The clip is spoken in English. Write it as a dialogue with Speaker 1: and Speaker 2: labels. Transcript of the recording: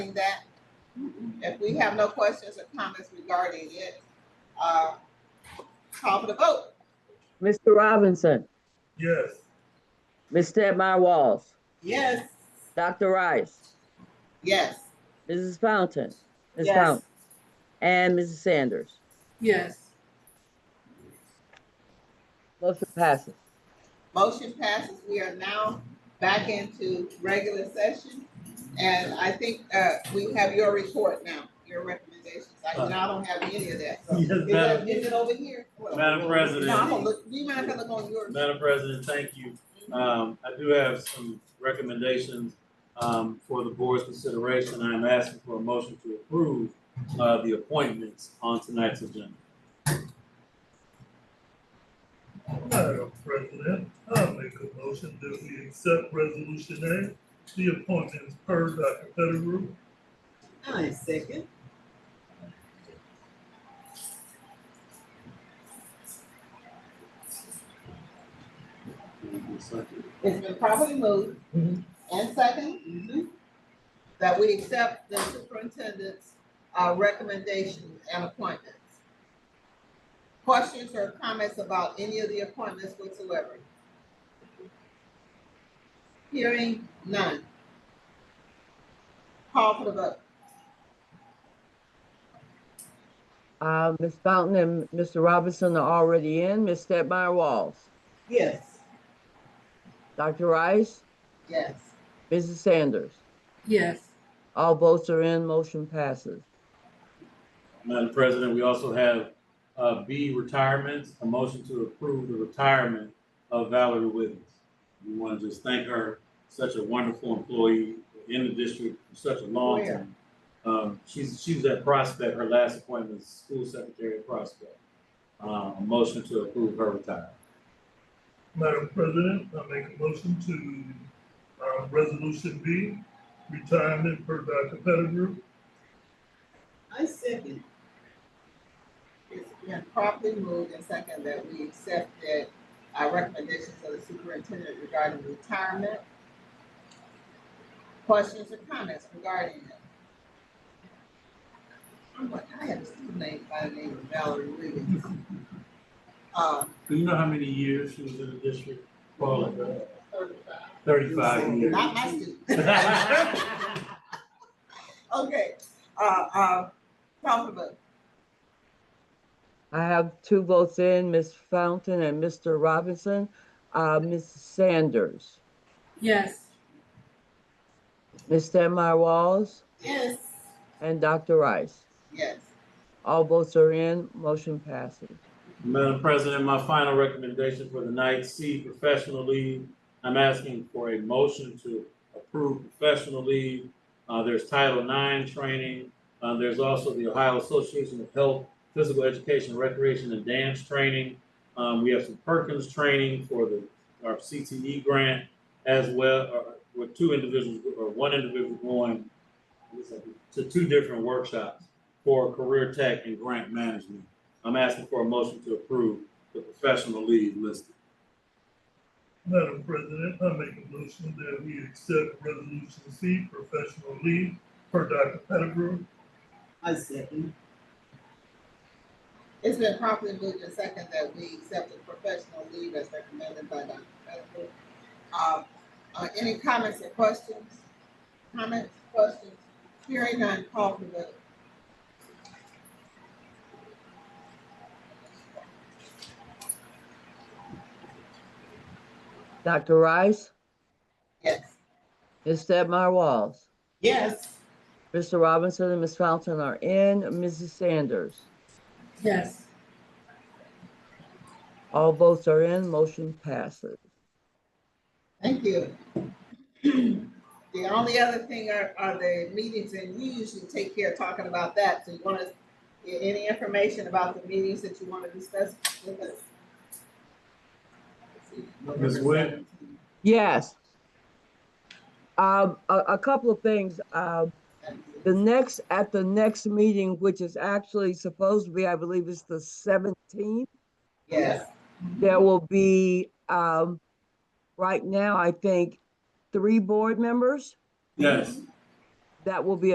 Speaker 1: regarding that. If we have no questions or comments regarding it, uh, call for the vote.
Speaker 2: Mr. Robinson,
Speaker 3: Yes.
Speaker 2: Ms. Stepmy Walls,
Speaker 1: Yes,
Speaker 2: Dr. Rice,
Speaker 1: yes.
Speaker 2: Mrs. Fountain, Ms.
Speaker 4: Yes.
Speaker 2: Fountain, and Mrs. Sanders.
Speaker 4: Yes.
Speaker 2: Motion passes.
Speaker 1: Motion passes. We are now back into regular session. And I think, uh, we have your report now, your recommendations. I, no, I don't have any of that. So,
Speaker 3: Yes,
Speaker 1: Is
Speaker 3: Madam-
Speaker 1: it- is it over here? Well,
Speaker 3: Madam President.
Speaker 1: No, I'm gonna look, do you mind if I look on yours?
Speaker 3: Madam President, thank you. Um, I do have some recommendations, um, for the board's consideration. I'm asking for a motion to approve, uh, the appointments on tonight's agenda.
Speaker 5: Madam President, I make a motion that we accept resolution A, the appointments per Dr. Pettigrew.
Speaker 4: I second.
Speaker 1: It's been properly moved and second that we accept the superintendent's, uh, recommendations and appointments. Questions or comments about any of the appointments whatsoever? Hearing none. Call for the vote.
Speaker 2: Uh, Ms. Fountain and Mr. Robinson are already in. Ms. Stepmy Walls,
Speaker 1: Yes.
Speaker 2: Dr. Rice,
Speaker 1: Yes.
Speaker 2: Mrs. Sanders.
Speaker 4: Yes.
Speaker 2: All votes are in. Motion passes.
Speaker 3: Madam President, we also have, uh, B retirements, a motion to approve the retirement of Valerie Williams. We want to just thank her, such a wonderful employee in the district for such a long
Speaker 1: Where?
Speaker 3: time. Um, she's, she was at Prospect, her last appointment was school secretary at Prospect. Uh, a motion to approve her retirement.
Speaker 5: Madam President, I make a motion to, uh, resolution B, retirement per Dr. Pettigrew.
Speaker 4: I second.
Speaker 1: It's been properly moved and second that we accept that our recommendations of the superintendent regarding retirement. Questions or comments regarding it? I'm like, I have a student named by the name of Valerie Williams. Uh,
Speaker 3: Do you know how many years she was in the district? Paula, uh,
Speaker 1: certified.
Speaker 3: thirty-five years.
Speaker 1: Not my student. Okay, uh, uh, call for vote.
Speaker 2: I have two votes in, Ms. Fountain and Mr. Robinson. Uh, Ms. Sanders,
Speaker 4: Yes.
Speaker 2: Ms. Stepmy Walls,
Speaker 1: Yes.
Speaker 2: and Dr. Rice.
Speaker 1: Yes.
Speaker 2: All votes are in. Motion passes.
Speaker 3: Madam President, my final recommendation for the night, C, professional leave. I'm asking for a motion to approve professional leave. Uh, there's Title IX training. Uh, there's also the Ohio Association of Health, Physical Education, Recreation, and Dance Training. Um, we have some Perkins training for the, our CTE grant as well, or with two individuals, or one individual going to two different workshops for career tech and grant management. I'm asking for a motion to approve the professional leave listed.
Speaker 5: Madam President, I make a motion that we accept resolution C, professional leave per Dr. Pettigrew.
Speaker 4: I second.
Speaker 1: It's been properly moved and second that we accept the professional leave as recommended by Dr. Pettigrew. Uh, uh, any comments or questions? Comments, questions? Hearing none, call for vote.
Speaker 2: Dr. Rice,
Speaker 1: Yes.
Speaker 2: Ms. Stepmy Walls,
Speaker 1: Yes.
Speaker 2: Mr. Robinson and Ms. Fountain are in. Mrs. Sanders,
Speaker 4: Yes.
Speaker 2: all votes are in. Motion passes.
Speaker 1: Thank you. The only other thing are, are the meetings, and you usually take care of talking about that. So you want to, any information about the meetings that you want to discuss with us?
Speaker 3: Ms. Webb?
Speaker 2: Yes. Um, a, a couple of things. Um, The next, at the next meeting, which is actually supposed to be, I believe it's the seventeenth,
Speaker 1: Yes.
Speaker 2: there will be, um, right now, I think, three board members
Speaker 3: Yes.
Speaker 2: that will be